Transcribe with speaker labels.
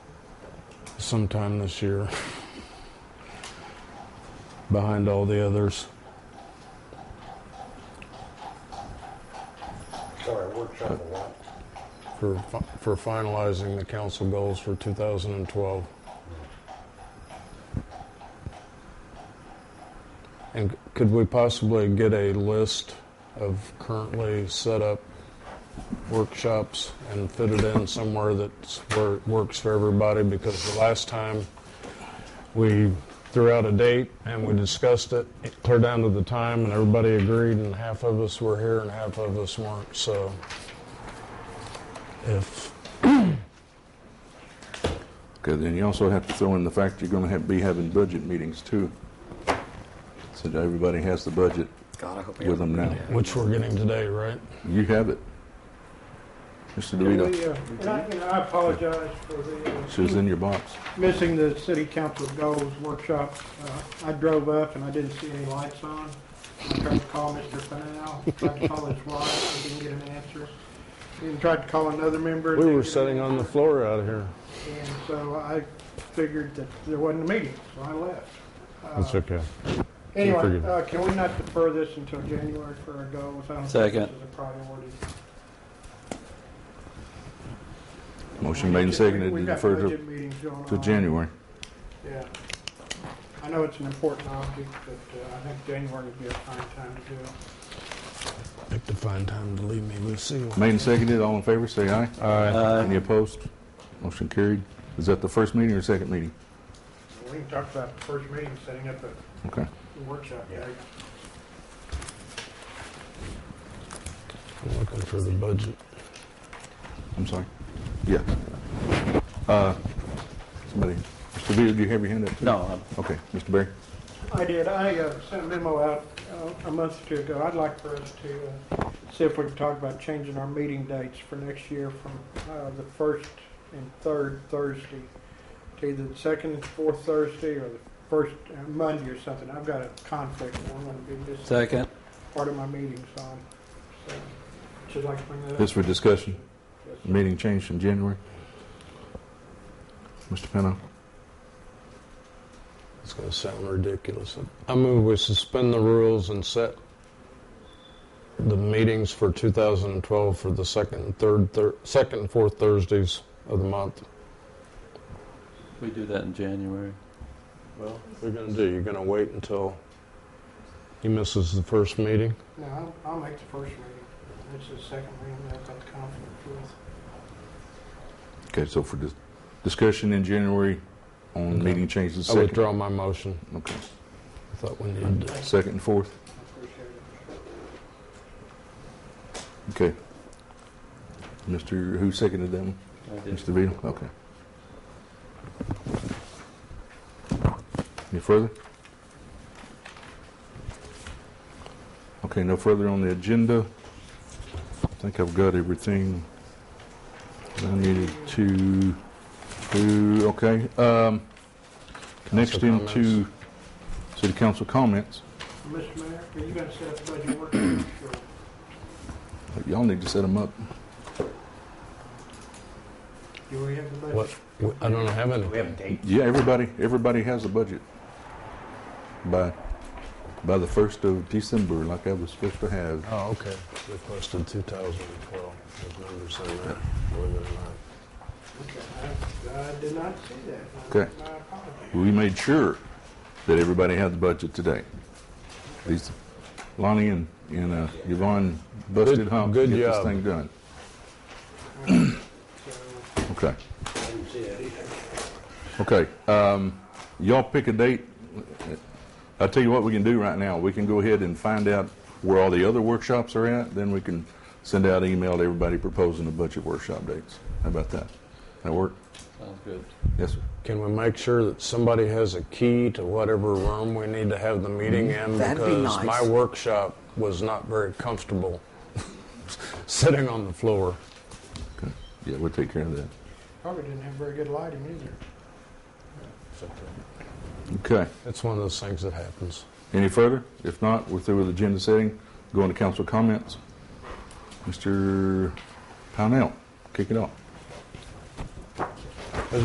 Speaker 1: sometime this year behind all the others.
Speaker 2: Sorry, I worked on the lot.
Speaker 1: for, fi- for finalizing the council goals for 2012. And c- could we possibly get a list of currently set up workshops and fit it in somewhere that's where it works for everybody? Because the last time we threw out a date and we discussed it, it clear down to the time, and everybody agreed, and half of us were here and half of us weren't. So if
Speaker 3: Okay, then you also have to throw in the fact you're going to have, be having budget meetings too. So that everybody has the budget
Speaker 4: God, I hope
Speaker 3: with them now.
Speaker 1: Which we're getting today, right?
Speaker 3: You have it. Mr.
Speaker 5: Can
Speaker 3: DeVito,
Speaker 5: we, uh, and I and I apologize for
Speaker 3: it's
Speaker 5: the,
Speaker 3: just
Speaker 5: uh,
Speaker 3: in your box.
Speaker 5: missing the city council goals workshop. Uh, I drove up and I didn't see any lights on. I tried to call Mr. Fanal, tried to call his wife, I didn't get an answer. And tried to call another member.
Speaker 1: We
Speaker 5: didn't
Speaker 1: were
Speaker 5: get an
Speaker 1: sitting on the floor out here.
Speaker 5: answer. And so I figured that there wasn't a meeting, so I left. Uh,
Speaker 1: That's okay.
Speaker 5: Anyway,
Speaker 1: forgive me.
Speaker 5: uh, can we not defer this until January for our goals? I don't think
Speaker 4: Second.
Speaker 5: this is a priority.
Speaker 3: Motion made and seconded to
Speaker 5: We've got
Speaker 3: defer to,
Speaker 5: budget meetings going
Speaker 3: to
Speaker 5: on.
Speaker 3: January.
Speaker 5: Yeah. I know it's an important object, but uh, I think January would be a fine time to do it.
Speaker 1: Picked a fine time to leave me, Lucille.
Speaker 3: Made and seconded, all in favor, say aye.
Speaker 4: Aye.
Speaker 3: Any opposed? Motion carried. Is that the first meeting or second meeting?
Speaker 5: We can talk about the first meeting, setting up a
Speaker 3: Okay.
Speaker 5: workshop
Speaker 2: Yeah.
Speaker 5: day.
Speaker 1: I'm looking for the budget.
Speaker 3: I'm sorry. Yeah. Uh, Somebody, Mr. DeVito, do you have your hand up?
Speaker 4: No, I'm-
Speaker 3: Okay, Mr. Berry.
Speaker 5: I did, I uh, sent a memo out uh, a month or two ago. I'd like for us to uh, see if we can talk about changing our meeting dates for next year from uh, the first and third Thursday to either the second and fourth Thursday or the first uh, Monday or something. I've got a conflict, I'm going to be missing
Speaker 4: second.
Speaker 5: part of my meeting, so I'm- so, should like to bring that up.
Speaker 3: This for discussion.
Speaker 5: Yes.
Speaker 3: Meeting changed in January. Mr. Pennell,
Speaker 1: It's going to sound ridiculous. I move we suspend the rules and set the meetings for 2012 for the second and third, thir- second and fourth Thursdays of the month.
Speaker 4: We do that in January. Well,
Speaker 1: What are you going to do? You're going to wait until he misses the first meeting?
Speaker 5: No, I'll- I'll make the first reading. This is the second reading that I've got conflict with.
Speaker 3: okay, so for dis- discussion in January on
Speaker 1: Okay.
Speaker 3: meeting changes. the
Speaker 1: I
Speaker 3: second.
Speaker 1: withdraw my motion.
Speaker 3: Okay,
Speaker 1: I thought we needed to.
Speaker 3: second and fourth,
Speaker 5: I appreciate
Speaker 3: okay.
Speaker 5: it.
Speaker 3: Mr., who seconded that one?
Speaker 4: I did.
Speaker 3: Mr. DeVito, okay. Any further? Okay, no further on the agenda. I think I've got everything that I needed to, do. okay. um, Next
Speaker 1: Council
Speaker 3: into city council comments.
Speaker 5: Mr. Mayor, are you going to set up a budget working?
Speaker 3: Y'all need to set them up.
Speaker 5: Do we have the budget?
Speaker 1: What? I don't have any.
Speaker 2: Do we have a date?
Speaker 3: Yeah, everybody, everybody has a budget by, by the first of December, like I was supposed to have.
Speaker 1: Oh, okay. Requested 2012. Those numbers are there, believe it or not.
Speaker 5: Okay, I I did not see that.
Speaker 3: Okay.
Speaker 5: My apologies.
Speaker 3: We made sure that everybody had the budget today. These, Lonnie and, and uh, Yvonne busted
Speaker 1: Good-
Speaker 3: hump to
Speaker 1: good
Speaker 3: get this
Speaker 1: job.
Speaker 3: thing done.
Speaker 5: So,
Speaker 3: Okay,
Speaker 2: I didn't see that either.
Speaker 3: okay. Um, y'all pick a date. I'll tell you what we can do right now. We can go ahead and find out where all the other workshops are at, then we can send out an email to everybody proposing the budget workshop dates. How about that? That work?
Speaker 4: Sounds good.
Speaker 3: Yes, sir.
Speaker 1: Can we make sure that somebody has a key to whatever room we need to have the meeting in?
Speaker 4: That'd be
Speaker 1: Because my
Speaker 4: nice.
Speaker 1: workshop was not very comfortable sitting on the floor.
Speaker 3: Yeah, we'll take care of that.
Speaker 5: Probably didn't have very good lighting either.
Speaker 3: Okay.
Speaker 1: It's one of those things that happens.
Speaker 3: Any further? If not, we're through with agenda setting. Going to council comments. Mr. Pownell, kick it off.